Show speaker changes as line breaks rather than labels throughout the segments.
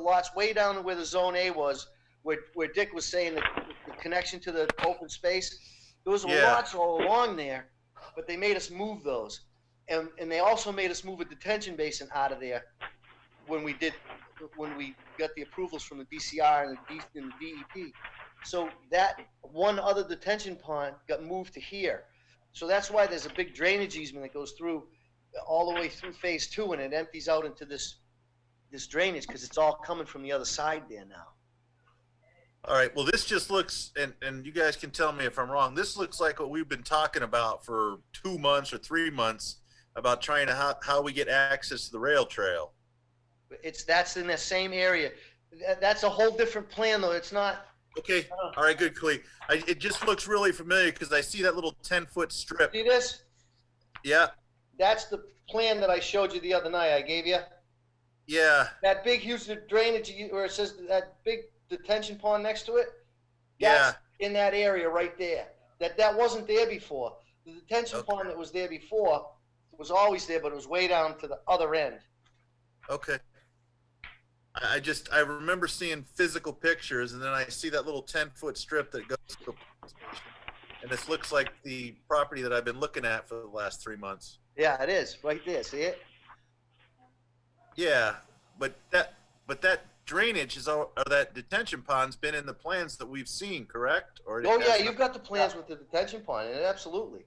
lots way down to where the zone A was, where, where Dick was saying the, the connection to the open space. There was
Yeah.
lots all along there, but they made us move those. And, and they also made us move a detention basin out of there when we did, when we got the approvals from the DCR and the, D, and the DEP. So that one other detention pond got moved to here. So that's why there's a big drainage easement that goes through all the way through phase two and it empties out into this, this drainage because it's all coming from the other side there now.
All right. Well, this just looks, and, and you guys can tell me if I'm wrong. This looks like what we've been talking about for two months or three months about trying to how, how we get access to the rail trail.
It's, that's in that same area. That, that's a whole different plan though. It's not,
Okay. All right. Good, Clee. I, it just looks really familiar because I see that little 10 foot strip.
see this?
Yeah.
That's the plan that I showed you the other night I gave you.
Yeah.
That big huge drainage, where it says that big detention pond next to it?
Yeah.
that's In that area right there. That, that wasn't there before. The detention
Okay.
pond that was there before was always there, but it was way down to the other end.
Okay. I, I just, I remember seeing physical pictures and then I see that little 10 foot strip that goes to the police station. And this looks like the property that I've been looking at for the last three months.
Yeah, it is, right there, see it?
Yeah, but that but that drainage is all, or that detention pond's been in the plans that we've seen, correct? Or it
Oh, yeah,
has-
you've got the plans with the detention pond, and absolutely.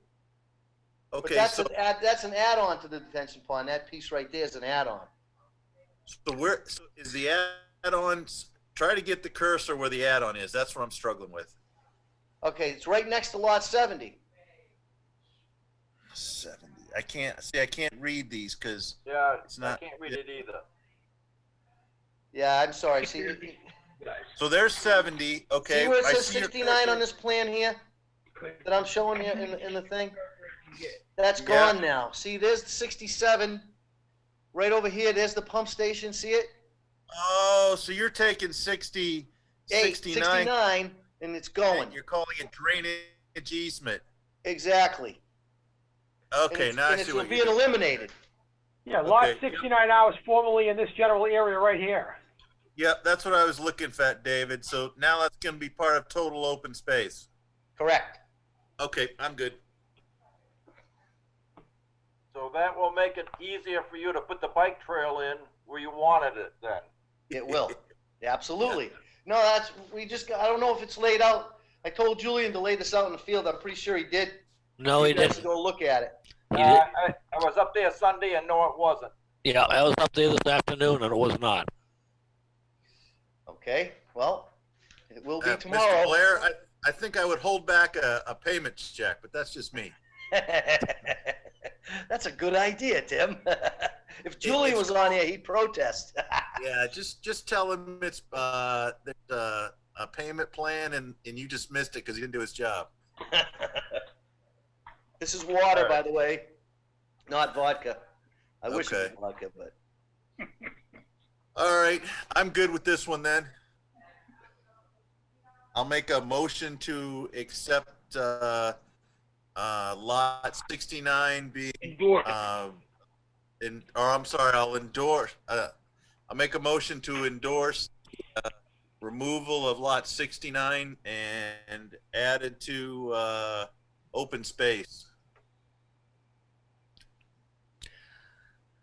But
okay.
that's
So,
an add, that's an add-on to the detention pond. That piece right there is an add-on.
so where so is the add-on? Try to get the cursor where the add-on is. That's what I'm struggling with.
Okay, it's right next to lot seventy.
Seventy. I can't see. I can't read these because
Yeah,
It's not-
I can't read it either.
Yeah, I'm sorry, see, see
so there's seventy. Okay.
where it
I
says
see your
sixty-nine
cursor.
on this plan here? That I'm showing you in, in the thing? That's
Yeah.
gone now. See, there's sixty-seven, right over here, there's the pump station, see it?
Oh, so you're taking 60,
Eight,
69.
sixty-nine, and it's going,
You're calling it drainage easement.
exactly. And
Okay,
it's-
now I
and
see
it's
what you're
being
doing.
eliminated.
Yeah, lot
Okay.
sixty-nine hours formerly in this general area right here.
Yep, that's what I was looking for, David. So now that's going to be part of total open space.
Correct.
Okay, I'm good.
So that will make it easier for you to put the bike trail in where you wanted it then.
It will. Absolutely. No, that's, we just, got- I don't know if it's laid out. I told Julian to lay this out in the field. I'm pretty sure he did.
No, he
You guys
didn't.
Go look at it.
He
Uh,
did-
I, I was up there Sunday and no, it wasn't.
Yeah, I was up there this afternoon and it was not.
Okay, well, it will be
Uh, Mr.
tomorrow.
Blair, I, I think I would hold back a, a payment check, but that's just me.
That's a good idea, Tim. If Julian
it's-
was on here, he'd protest.
Yeah, just just tell him it's uh, there's a, a payment plan and, and you just missed it because he didn't do his job.
This is water, by the way, not vodka. I wish it
Okay.
was vodka, but,
All right, I'm good with this one then. I'll make a motion to accept uh, uh, lot 69 being
Endorse.
um, in, or I'm sorry, I'll endorse, uh, I'll make a motion to endorse uh, removal of lot 69 and added to, uh, open space.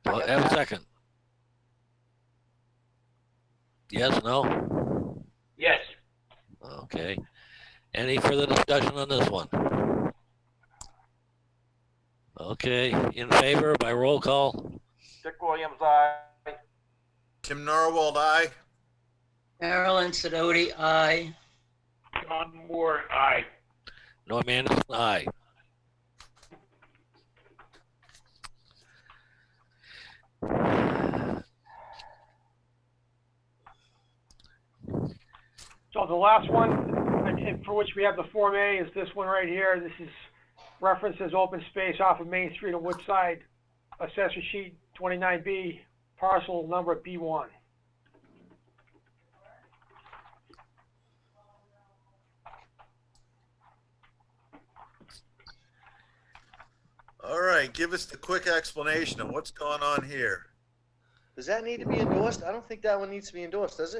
Well, have a second. Yes, no?
Yes.
Okay. Any further discussion on this one? Okay, in favor by roll call?
Dick Williams, I.
Tim Norwald, aye?
Marilyn Sedoti, aye.
John Moore, aye.
Norm Anderson, aye.
So the last one, and- and for which we have the Form A, is this one right here. This is referenced as open space off of Main Street and Woodside, Assessor Sheet 29B, parcel number B1.
All right, give us the quick explanation of what's going on here.
Does that need to be endorsed? I don't think that one needs to be endorsed, does it?